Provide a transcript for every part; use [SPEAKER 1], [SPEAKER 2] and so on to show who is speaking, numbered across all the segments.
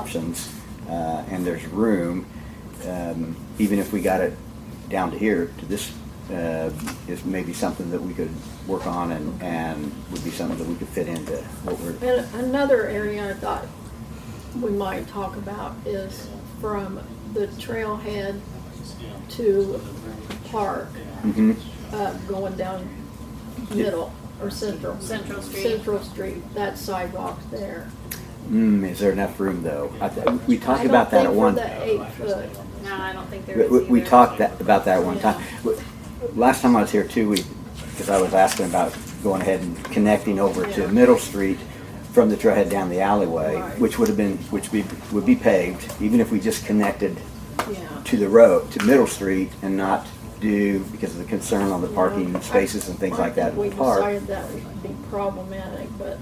[SPEAKER 1] options, uh, and there's room, um, even if we got it down to here, to this, uh, is maybe something that we could work on and, and would be something that we could fit into what we're,
[SPEAKER 2] And another area I thought we might talk about is from the trailhead to park,
[SPEAKER 1] Mhm.
[SPEAKER 2] uh, going down middle or central.
[SPEAKER 3] Central Street.
[SPEAKER 2] Central Street, that sidewalk there.
[SPEAKER 1] mm, is there enough room though? I th- We talked
[SPEAKER 2] I don't
[SPEAKER 1] about that at
[SPEAKER 2] think
[SPEAKER 1] one.
[SPEAKER 2] For the eight foot,
[SPEAKER 3] No, I don't think there
[SPEAKER 1] We,
[SPEAKER 3] is
[SPEAKER 1] we- we
[SPEAKER 3] either.
[SPEAKER 1] talked that, about that one time. W- Last time I was here too, we, because I was asking about going ahead and connecting over to
[SPEAKER 2] Yeah.
[SPEAKER 1] Middle Street from the trailhead down the alleyway,
[SPEAKER 2] Right.
[SPEAKER 1] which would have been, which be, would be paved, even if we just connected
[SPEAKER 2] yeah.
[SPEAKER 1] to the road, to Middle Street and not do, because of the concern on the
[SPEAKER 2] You
[SPEAKER 1] parking
[SPEAKER 2] know, I-
[SPEAKER 1] spaces and things
[SPEAKER 2] I
[SPEAKER 1] like that
[SPEAKER 2] think
[SPEAKER 1] in the park.
[SPEAKER 2] We decided that would be problematic, but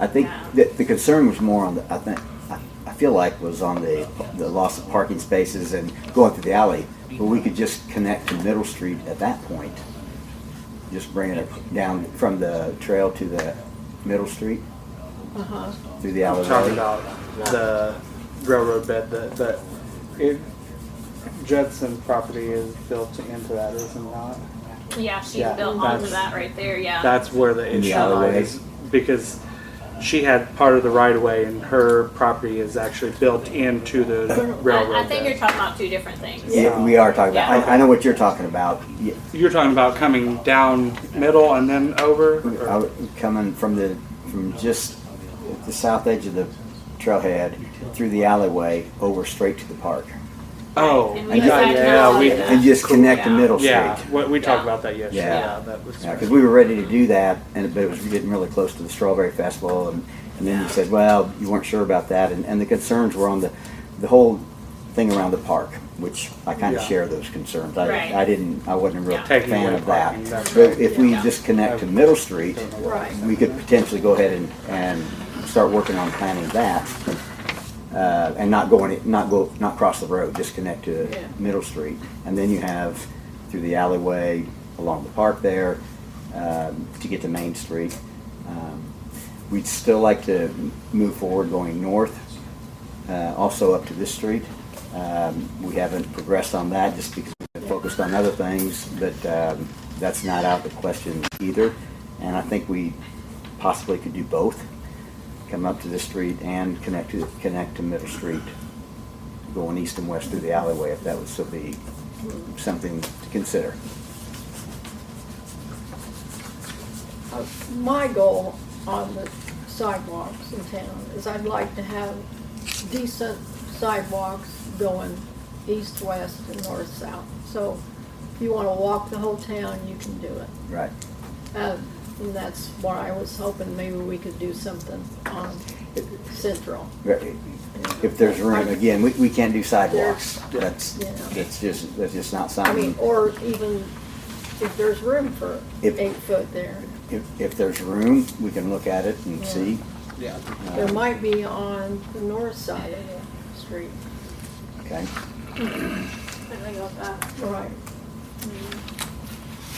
[SPEAKER 1] I think
[SPEAKER 3] Yeah.
[SPEAKER 1] that the concern was more on the, I think, I, I feel like was on the, the loss of parking spaces and going through the alley. But we could just connect to Middle Street at that point. Just bringing it down from the trail to the Middle Street
[SPEAKER 2] Uh-huh.
[SPEAKER 1] through the
[SPEAKER 4] I'm talking
[SPEAKER 1] alleyway.
[SPEAKER 4] about the railroad bed that, that it, Judson property is built into that, is it not?
[SPEAKER 3] Yeah, she's
[SPEAKER 4] Yeah,
[SPEAKER 3] built onto
[SPEAKER 4] that's-
[SPEAKER 3] that right there, yeah.
[SPEAKER 4] That's where the
[SPEAKER 1] In the
[SPEAKER 4] issue lies,
[SPEAKER 1] alleyways.
[SPEAKER 4] because she had part of the right of way and her property is actually built into the
[SPEAKER 3] I, I
[SPEAKER 4] railroad
[SPEAKER 3] think you're
[SPEAKER 4] bed.
[SPEAKER 3] talking about two different things.
[SPEAKER 1] Yeah, we are talking about, I, I know what you're talking about. Yeah,
[SPEAKER 4] You're talking about coming down middle and then over? or-
[SPEAKER 1] I was Coming from the, from just the south edge of the trailhead through the alleyway over straight to the park.
[SPEAKER 4] Oh,
[SPEAKER 3] And
[SPEAKER 4] yeah,
[SPEAKER 3] we decided
[SPEAKER 4] yeah,
[SPEAKER 3] not
[SPEAKER 4] we,
[SPEAKER 3] to do that.
[SPEAKER 1] And just connect to
[SPEAKER 3] Yeah.
[SPEAKER 1] Middle Street.
[SPEAKER 4] yeah, we, we
[SPEAKER 3] Yeah.
[SPEAKER 4] talked about that yesterday,
[SPEAKER 1] Yeah.
[SPEAKER 4] yeah, that was.
[SPEAKER 1] Yeah, because we were ready to do that, and but it was getting really close to the Strawberry Festival, and, and then you said, well, you weren't sure about that, and, and the concerns were on the, the whole thing around the park, which I kind of
[SPEAKER 4] Yeah.
[SPEAKER 1] share those concerns.
[SPEAKER 3] Right.
[SPEAKER 1] I, I didn't, I wasn't a real
[SPEAKER 3] Yeah.
[SPEAKER 4] Taking
[SPEAKER 1] fan
[SPEAKER 4] away
[SPEAKER 1] of that.
[SPEAKER 4] parking, that's
[SPEAKER 1] But
[SPEAKER 4] right.
[SPEAKER 1] if we
[SPEAKER 3] Yeah.
[SPEAKER 1] just connect to Middle Street,
[SPEAKER 2] Right.
[SPEAKER 1] we could potentially go ahead and, and start working on planning that. Uh, and not going, not go, not cross the road, just connect to
[SPEAKER 2] Yeah.
[SPEAKER 1] Middle Street. And then you have through the alleyway, along the park there, um, to get to Main Street. Um, We'd still like to m- move forward going north, uh, also up to this street. Um, We haven't progressed on that just because we've been focused on other things, but um, that's not out of the question either. And I think we possibly could do both, come up to this street and connect to, connect to Middle Street, going east and west through the alleyway, if that would still be something to consider.
[SPEAKER 2] Uh, My goal on the sidewalks in town is I'd like to have decent sidewalks going east, west, and north, south. So if you wanna walk the whole town, you can do it.
[SPEAKER 1] Right.
[SPEAKER 2] Uh, And that's what I was hoping, maybe we could do something on Central.
[SPEAKER 1] Right. If there's room, again, we, we can't do sidewalks. That's,
[SPEAKER 2] Yeah.
[SPEAKER 1] that's just, that's just not
[SPEAKER 2] I
[SPEAKER 1] something,
[SPEAKER 2] mean, or even if there's room for
[SPEAKER 1] If-
[SPEAKER 2] eight foot there.
[SPEAKER 1] if, if there's room, we can look at it and
[SPEAKER 2] Yeah.
[SPEAKER 1] see.
[SPEAKER 4] Yeah.
[SPEAKER 2] There
[SPEAKER 1] Um,
[SPEAKER 2] might be on the north side of the street.
[SPEAKER 1] Uh, Okay,
[SPEAKER 3] I think about that.
[SPEAKER 2] Right.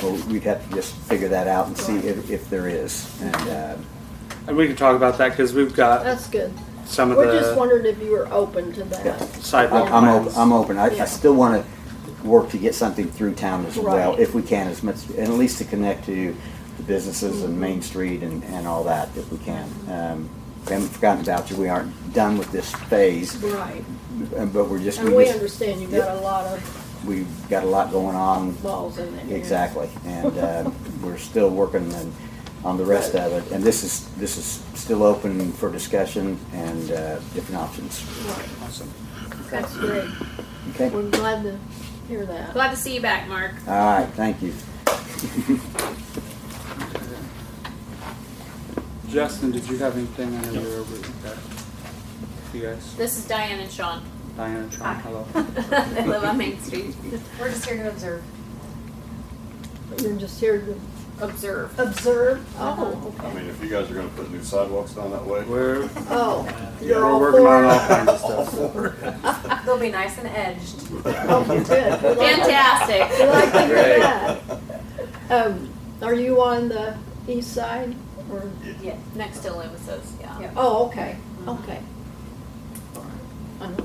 [SPEAKER 1] well, we'd have to just figure that out and see if, if there is, and, uh,
[SPEAKER 4] And we can talk about that, cause we've got
[SPEAKER 2] That's good.
[SPEAKER 4] some of the.
[SPEAKER 2] We just wondered if you were open to
[SPEAKER 1] Yeah.
[SPEAKER 2] that.
[SPEAKER 4] sidewalk
[SPEAKER 1] I'm, I'm
[SPEAKER 4] plans.
[SPEAKER 1] open, I'm open, I,
[SPEAKER 2] Yeah.
[SPEAKER 1] I still wanna work to get something through town as well,
[SPEAKER 2] Right.
[SPEAKER 1] if we can, as much, and at least to connect to the businesses
[SPEAKER 2] Mm-hmm.
[SPEAKER 1] and Main Street and, and all that, if we can. Um, we haven't forgotten about you, we aren't done with this phase,
[SPEAKER 2] Right.
[SPEAKER 1] uh, but we're just,
[SPEAKER 2] And we
[SPEAKER 1] we just,
[SPEAKER 2] understand you got a lot of
[SPEAKER 1] we've got a lot going on,
[SPEAKER 2] balls in there.
[SPEAKER 1] Exactly, and uh, we're still working on- on the rest of it, and this is, this is still open for discussion and uh, different options.
[SPEAKER 2] Right.
[SPEAKER 4] Awesome.
[SPEAKER 2] That's great.
[SPEAKER 1] Okay, all
[SPEAKER 2] We're glad to hear that.
[SPEAKER 3] Glad to see you back, Mark.
[SPEAKER 1] right, thank you.
[SPEAKER 4] Justin, did you have anything on your over? okay. You guys,
[SPEAKER 3] This is Diane and Sean.
[SPEAKER 4] Diana, Tron, hello.
[SPEAKER 3] they live on Main Street.
[SPEAKER 5] We're just here to observe.
[SPEAKER 2] You're just here to
[SPEAKER 3] Observe.
[SPEAKER 2] observe. Oh,
[SPEAKER 6] I
[SPEAKER 2] okay.
[SPEAKER 6] mean, if you guys are gonna put new sidewalks down that way.
[SPEAKER 4] We're
[SPEAKER 2] Oh,
[SPEAKER 4] yeah,
[SPEAKER 2] you're
[SPEAKER 4] we're
[SPEAKER 2] all
[SPEAKER 4] working
[SPEAKER 2] for
[SPEAKER 4] on all
[SPEAKER 2] it?
[SPEAKER 4] kinds of stuff.
[SPEAKER 5] They'll be nice and edged.
[SPEAKER 2] Oh, good. We like- we
[SPEAKER 3] Fantastic.
[SPEAKER 2] like to hear
[SPEAKER 4] Great.
[SPEAKER 2] that. Um, are you on the east side or?
[SPEAKER 5] Yeah.
[SPEAKER 3] Next to Loomis's, yeah.
[SPEAKER 5] Yeah.
[SPEAKER 2] Oh, okay, okay. I don't